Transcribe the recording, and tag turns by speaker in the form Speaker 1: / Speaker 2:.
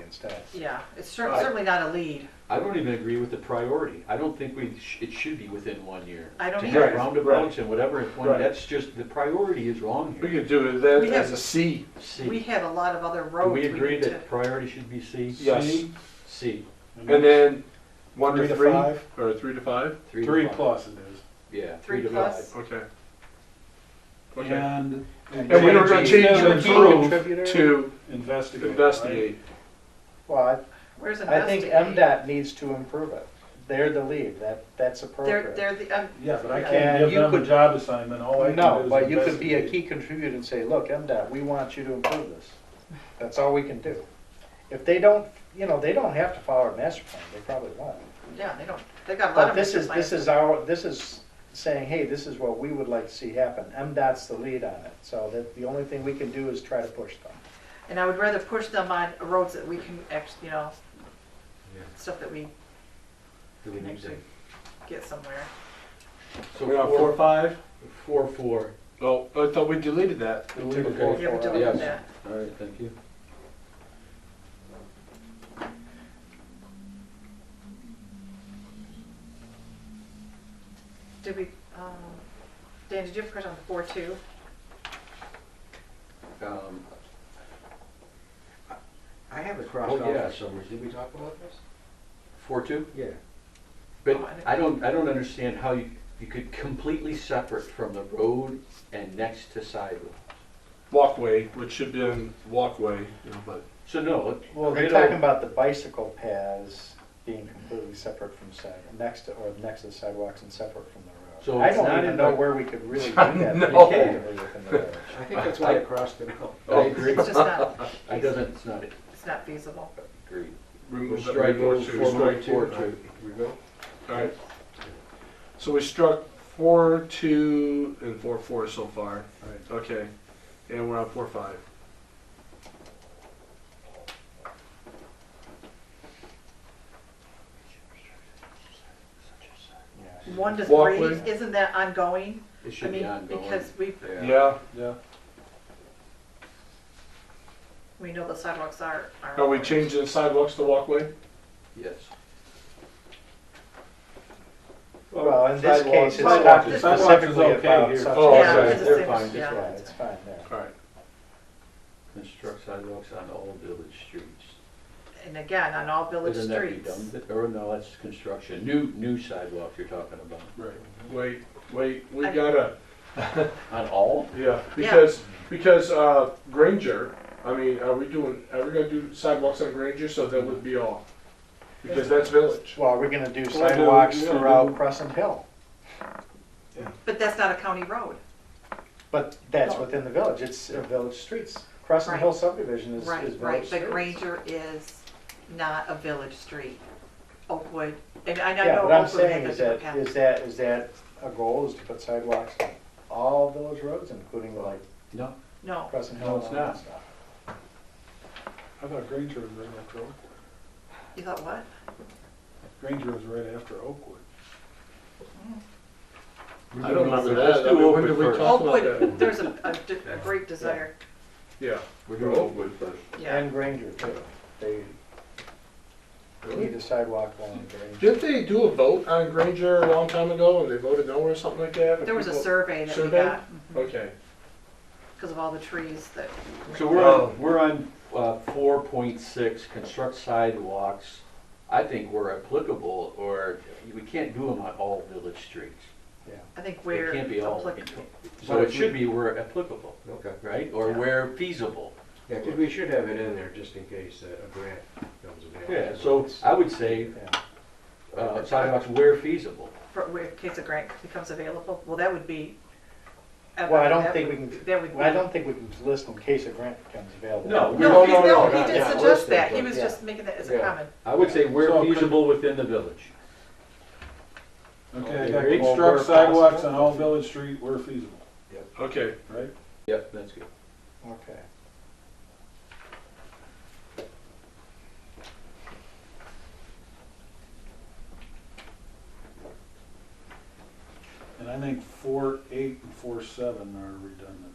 Speaker 1: instead.
Speaker 2: Yeah, it's cer- certainly not a lead.
Speaker 3: I don't even agree with the priority. I don't think we, sh- it should be within one year.
Speaker 2: I don't
Speaker 3: To
Speaker 2: either.
Speaker 3: have roundabouts and whatever, at one-
Speaker 4: Right.
Speaker 3: that's just, the priority is wrong
Speaker 4: We
Speaker 3: here.
Speaker 4: could do that
Speaker 2: We
Speaker 4: as
Speaker 2: have-
Speaker 4: a C.
Speaker 3: C.
Speaker 2: We have a lot of other
Speaker 3: Do
Speaker 2: roads.
Speaker 3: we agree
Speaker 2: need to-
Speaker 3: that priority should be C?
Speaker 4: Yes.
Speaker 3: C,
Speaker 4: And then one
Speaker 1: Three
Speaker 4: to
Speaker 1: to
Speaker 4: three,
Speaker 1: five?
Speaker 4: or three to five?
Speaker 3: three to
Speaker 1: Three
Speaker 3: five.
Speaker 1: plus it is.
Speaker 3: Yeah.
Speaker 2: Three
Speaker 3: to
Speaker 2: plus.
Speaker 3: five.
Speaker 4: Okay. Okay.
Speaker 5: And
Speaker 4: And
Speaker 1: And
Speaker 4: we
Speaker 1: then
Speaker 4: were gonna
Speaker 1: we
Speaker 4: change
Speaker 1: have
Speaker 4: to
Speaker 1: a key
Speaker 4: improve
Speaker 3: contributor?
Speaker 4: to
Speaker 1: Investigate. right?
Speaker 4: investigate.
Speaker 6: Well,
Speaker 2: Where's
Speaker 6: I, I think
Speaker 2: investigate?
Speaker 6: MDOT needs to improve it. They're the lead, that, that's
Speaker 2: They're,
Speaker 6: appropriate.
Speaker 2: they're the, um,
Speaker 1: Yeah, but I
Speaker 6: And
Speaker 1: can't give
Speaker 6: you
Speaker 1: them a
Speaker 6: could-
Speaker 1: job assignment, all I can do is
Speaker 6: No, but you could be a
Speaker 1: investigate.
Speaker 6: key contributor and say, look, MDOT, we want you to improve this. That's all we can do. If they don't, you know, they don't have to follow our master plan, they probably won't.
Speaker 2: yeah, they don't, they've got a lot
Speaker 6: But
Speaker 2: of.
Speaker 6: this is,
Speaker 2: different
Speaker 6: this is our, this is saying, hey, this is what we would like to see happen. MDOT's the lead on it, so that, the only thing we can do is try to push them.
Speaker 2: plans. And I would rather push them on roads that we can act, you know,
Speaker 3: Yeah.
Speaker 2: stuff that we
Speaker 3: Do we
Speaker 2: can
Speaker 3: need
Speaker 2: actually
Speaker 3: that?
Speaker 2: get somewhere.
Speaker 3: So
Speaker 4: We got four, five?
Speaker 3: Four, four.
Speaker 4: Oh, I thought we deleted that.
Speaker 3: Okay.
Speaker 2: Yeah, we do
Speaker 3: Yes.
Speaker 2: that.
Speaker 3: All right, thank you.
Speaker 2: Did we, um, Dan, did you have a question on four two?
Speaker 3: Um,
Speaker 7: I have it crossed
Speaker 3: Oh,
Speaker 7: off
Speaker 3: yeah.
Speaker 7: for some reason. Did we talk about this?
Speaker 3: Four, two?
Speaker 7: Yeah.
Speaker 3: But
Speaker 2: Oh,
Speaker 3: I don't, I don't understand how you, you could completely separate from the road and next to sidewalk.
Speaker 4: Walkway, which should be in walkway, you know, but.
Speaker 3: So no,
Speaker 6: Well, they're
Speaker 3: Right
Speaker 6: talking
Speaker 3: on.
Speaker 6: about the bicycle paths being completely separate from side, next to, or next to sidewalks and separate from the
Speaker 3: So
Speaker 6: road. I
Speaker 3: it's
Speaker 6: don't
Speaker 3: not
Speaker 6: even
Speaker 3: in
Speaker 6: know
Speaker 3: the-
Speaker 6: where we could really do that
Speaker 4: No.
Speaker 6: effectively within the village.
Speaker 7: I think that's why I crossed it out.
Speaker 3: I agree,
Speaker 2: It's just not,
Speaker 3: Oh. I doesn't, it's not
Speaker 2: it's not feasible.
Speaker 3: agreed. We're
Speaker 4: Remove that
Speaker 3: striking
Speaker 4: four two.
Speaker 3: four
Speaker 4: Strike
Speaker 3: point
Speaker 4: four
Speaker 3: four
Speaker 4: two.
Speaker 3: two.
Speaker 7: We go?
Speaker 4: Alright. So we struck four, two, and four, four so far.
Speaker 1: Right.
Speaker 4: Okay. And we're on four, five.
Speaker 2: One to
Speaker 4: Walkway.
Speaker 2: three, isn't that ongoing?
Speaker 3: It
Speaker 2: I
Speaker 3: should be
Speaker 2: mean,
Speaker 3: ongoing.
Speaker 2: because we,
Speaker 4: Yeah.
Speaker 1: Yeah,
Speaker 2: we know the sidewalks are.
Speaker 4: Are we changing sidewalks to walkway?
Speaker 3: Yes.
Speaker 6: Well, in this
Speaker 1: sidewalks-
Speaker 6: case, it's
Speaker 2: sidewalks-
Speaker 6: talking
Speaker 1: sidewalks is
Speaker 6: specifically
Speaker 1: okay
Speaker 6: about
Speaker 1: here.
Speaker 6: such.
Speaker 4: Oh,
Speaker 2: Yeah,
Speaker 4: okay.
Speaker 2: it's the
Speaker 3: They're
Speaker 2: same-
Speaker 3: fine, just
Speaker 2: yeah,
Speaker 6: Yeah,
Speaker 2: it's
Speaker 6: it's fine there.
Speaker 4: Alright.
Speaker 3: Construct sidewalks on all village streets.
Speaker 2: And again, on all village
Speaker 3: Isn't that
Speaker 2: streets.
Speaker 3: redundant? Or no, that's construction, new, new sidewalks you're talking about.
Speaker 4: Right. Wait, wait, we
Speaker 2: I-
Speaker 4: gotta,
Speaker 3: On all?
Speaker 4: yeah, because, because, uh, Granger, I mean, are we doing, are we gonna do sidewalks on Granger, so that would be all? Because that's village.
Speaker 6: Well, we're gonna do
Speaker 4: Well, I do-
Speaker 6: sidewalks
Speaker 4: yeah, I do.
Speaker 6: throughout Crescent Hill,
Speaker 2: But that's not a county road.
Speaker 6: but that's
Speaker 2: No.
Speaker 6: within the village, it's uh, village streets. Crescent
Speaker 2: Oh. Right.
Speaker 6: Hill subdivision is, is
Speaker 2: Right,
Speaker 6: village
Speaker 2: right.
Speaker 6: streets.
Speaker 2: But Granger is not a village street. Oakwood, and I
Speaker 6: Yeah,
Speaker 2: know
Speaker 6: what I'm
Speaker 2: Oakwood
Speaker 6: saying
Speaker 2: has
Speaker 6: is
Speaker 2: a different
Speaker 6: that,
Speaker 2: path.
Speaker 6: is that, is that a goal is to put sidewalks on all village roads, including like
Speaker 3: No,
Speaker 2: No,
Speaker 6: Crescent
Speaker 3: No,
Speaker 6: Hill and
Speaker 3: it's
Speaker 6: all that
Speaker 3: not.
Speaker 6: stuff?
Speaker 1: I thought Granger was right after Oakwood.
Speaker 2: you thought what?
Speaker 1: Granger was right after Oakwood.
Speaker 4: I don't remember
Speaker 3: Let's
Speaker 4: that.
Speaker 3: do
Speaker 4: I
Speaker 3: Oakwood
Speaker 4: mean, when did we
Speaker 3: first.
Speaker 4: talk about
Speaker 2: Oakwood,
Speaker 4: that?
Speaker 2: there's a, a di- a great desire,
Speaker 4: Yeah.
Speaker 3: We're doing Oakwood first.
Speaker 2: yeah.
Speaker 6: And Granger too. They, they need a sidewalk along Granger.
Speaker 4: Didn't they do a vote on Granger a long time ago, and they voted no or something like that?
Speaker 2: There was a
Speaker 4: People-
Speaker 2: survey that we
Speaker 4: Survey?
Speaker 2: got
Speaker 4: Okay.
Speaker 2: because of all the trees that,
Speaker 3: So we're on, we're on uh, four point six, construct sidewalks. I think we're applicable, or we can't do them on all village streets.
Speaker 2: I think
Speaker 3: It
Speaker 2: where
Speaker 3: can't be all.
Speaker 2: applicable.
Speaker 3: So it should be where applicable,
Speaker 7: Okay.
Speaker 3: right? Or
Speaker 2: Yeah.
Speaker 3: where feasible.
Speaker 7: Yeah, 'cause we should have it in there just in case uh, a grant comes available.
Speaker 3: Yeah, so I would say
Speaker 6: Yeah.
Speaker 3: uh, sidewalks where feasible.
Speaker 2: for, where, in case a grant becomes available, well, that would be.
Speaker 6: Well, I don't
Speaker 2: that
Speaker 6: think
Speaker 2: would-
Speaker 6: we can-
Speaker 2: That would be.
Speaker 6: I don't think we can list in case a grant becomes available.
Speaker 3: No, we
Speaker 2: No,
Speaker 3: don't-
Speaker 2: he,
Speaker 3: no,
Speaker 2: no,
Speaker 3: no,
Speaker 2: he didn't
Speaker 3: yeah,
Speaker 2: suggest
Speaker 3: listed,
Speaker 2: that, he
Speaker 3: but-
Speaker 2: was
Speaker 6: yeah.
Speaker 2: just making that as a
Speaker 7: Yeah.
Speaker 2: comment.
Speaker 3: I would say
Speaker 1: So
Speaker 3: where
Speaker 1: could-
Speaker 3: feasible within the village.
Speaker 1: Okay, I
Speaker 3: Okay,
Speaker 1: got
Speaker 3: great. Well,
Speaker 1: construct
Speaker 3: where
Speaker 1: sidewalks
Speaker 3: possible.
Speaker 1: on all village street where feasible,
Speaker 4: Okay.
Speaker 1: right?
Speaker 3: Yep, that's good.
Speaker 6: Okay.
Speaker 1: And I think four, eight, and four, seven are redundant.